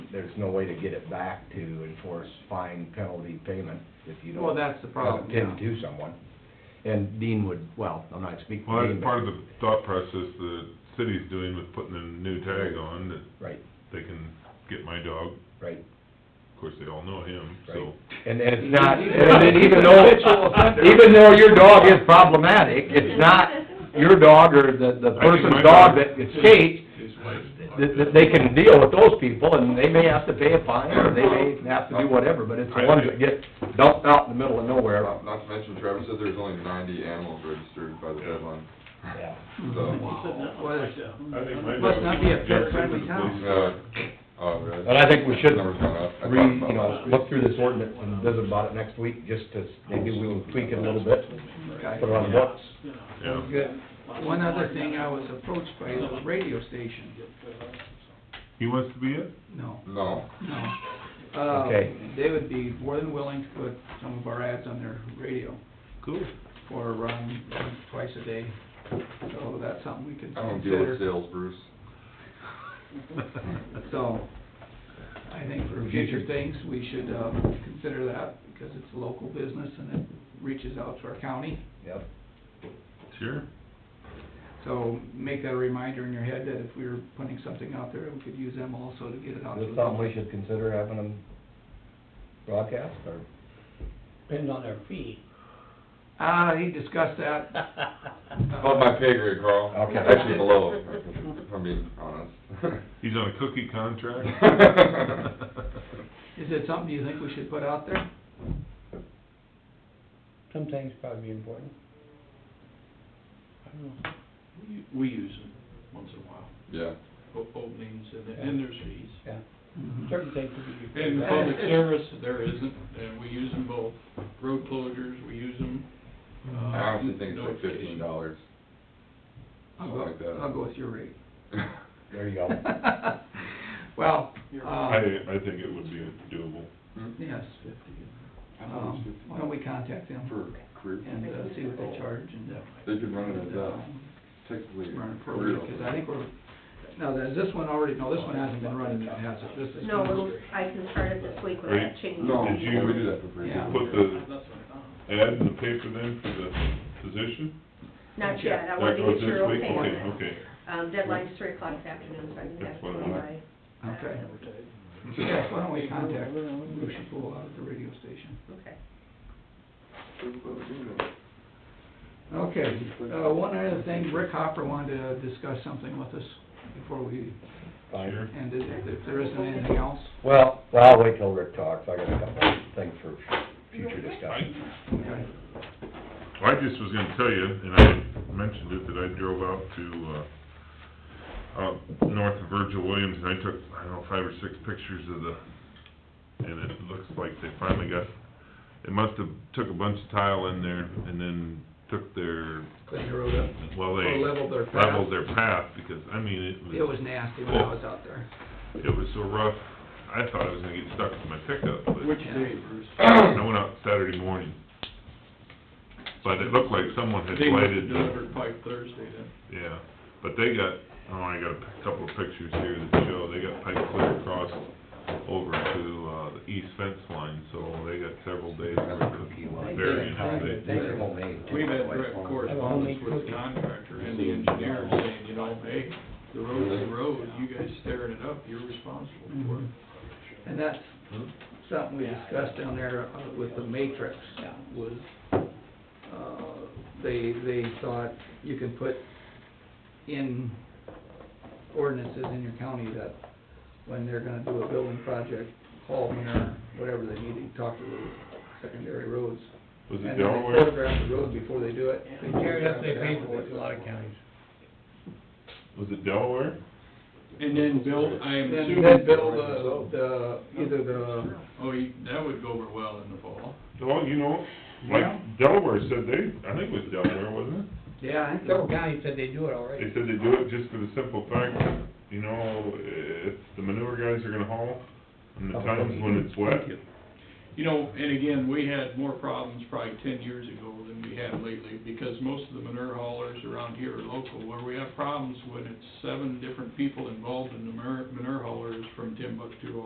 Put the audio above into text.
there's no way to get it back to enforce fine penalty payment if you don't. Well, that's the problem, yeah. Attend to someone. And Dean would, well, I'm not speaking. for Well, Dean, that's but- part of the thought process the city's doing with putting a new tag on that Right, they can get my dog. right, Of course, they all know him, so. right. And then it's not, and then even though, even though your dog is problematic, it's not your dog or the, the I think my person's dog dog- that escaped, that, that they can deal with those people, and they may have to pay a fine, or they may have to do whatever, but it's the ones that get dumped out in the middle of nowhere. Not not to mention Travis said there's only ninety animals registered by the deadline, Yeah. so, Well, it's- I think my Must not dog be a is Jefferson pet-friendly to the town. police. uh, oh, really? And I think we should Numbers gone up. I re, talked about you know, last week. look through this ordinance and visit about it next week, just to, maybe we'll tweak it a little bit, put it on the books. Yeah. Good. One other thing, I was approached by the radio station. He wants to be it? No, No, no. Uh, Okay. They would be more than willing to put some of our ads on their radio Cool. for, um, twice a day. So that's something we could I don't deal with consider. sales, Bruce. So, I think for future things, we should, uh, consider that because it's a local business and it reaches out to our county. Yep. Sure. So make that a reminder in your head that if we were putting something out there, we could use them also to get it out to Is the it something public. we should consider having them broadcast, or? Depends on their fee. Ah, he discussed that. Above my pay grade, Carl. Okay. Actually below, if I'm being honest. He's on a cookie contract. Is it something you think we should put out there? Sometimes probably important. I don't know. We use them once in a while, Yeah. o- openings, and then and there's fees. Yeah, Mm-hmm. Mhm. certain things would be. In public service, there isn't, and we use them both, road closures, we use them. uh, I honestly think it's like fifteen dollars. I'll Something like go, that. I'll go with your rate. There you go. Well, I, uh, I think it would be doable. yes. Um, Why don't we contact them For career. and uh, see what they charge and, uh, They could run it as, uh, um, technically. a run it for a career week, 'cause I think opening. we're, now, is this one already, no, this one hasn't been running yet, has it? This is. No, it'll, I can start it this week when I Right. change. No, Did you- we do that for free. Yeah. Put the ad in the paper then for the position? Not yet, That I wanted to goes get this your week? okay on it. Okay, okay. Um, deadline's three o'clock this afternoon, so I can have That's to what I by. Okay. Yes, why don't we contact Lucia Pool out at the radio station? Okay. Okay, uh, one other thing, Rick Hopper wanted to discuss something with us before we Fine. Sure. ended, if if there isn't anything else. Well, well, I'll wait till Rick talks, I got a couple things for future I, discussion. Okay. I just was gonna tell you, and I mentioned it, that I drove out to, uh, out north of Virgil Williams, and I took, I don't know, five or six pictures of the, and it looks like they finally got, they must have took a bunch of tile in there, and then took their, Clean the road up. well, they Or leveled their path. leveled their path, because, I mean, it was. It was nasty when I was out there. It was so rough, I thought I was gonna get stuck with my pickup, but. Which day, Bruce? I went out Saturday morning. But it looked like someone had They must have lighted the, delivered pipe Thursday then. yeah, but they got, oh, I got a p- couple of pictures here that show, they got pipe clear across over to, uh, the east fence line, so they got several days worth of burying it. They- They're homemade. We've had direct correspondence with the contractor and the engineer saying, you know, hey, the road's the road, you guys staring it up, you're responsible for it. And that's something we discussed down there uh, with the matrix, was, uh, they, they thought you can put in ordinances in your county that when they're gonna do a building project, call me or whatever they need to talk to the secondary roads. Was And it then they Delaware? photograph the road before they do it. They tear it up, they pay for it, a lot of counties. Was it Delaware? And then Bill, I Mm-hmm. Then, am then assuming, build the, the, uh, either the oh, you- that would go over well in the fall. Well, you know, Yeah. like Delaware said they, I think it was Delaware, wasn't it? Yeah, I think Several so. counties said they do it already. They said they do it just for the simple fact, that, you know, if the manure guys are gonna haul, and the times when it's wet, You know, and again, we had more problems probably ten years ago than we have lately, because most of the manure haulers around here are local, where we have problems when it's seven different people involved in the manure, manure haulers from Timbuktu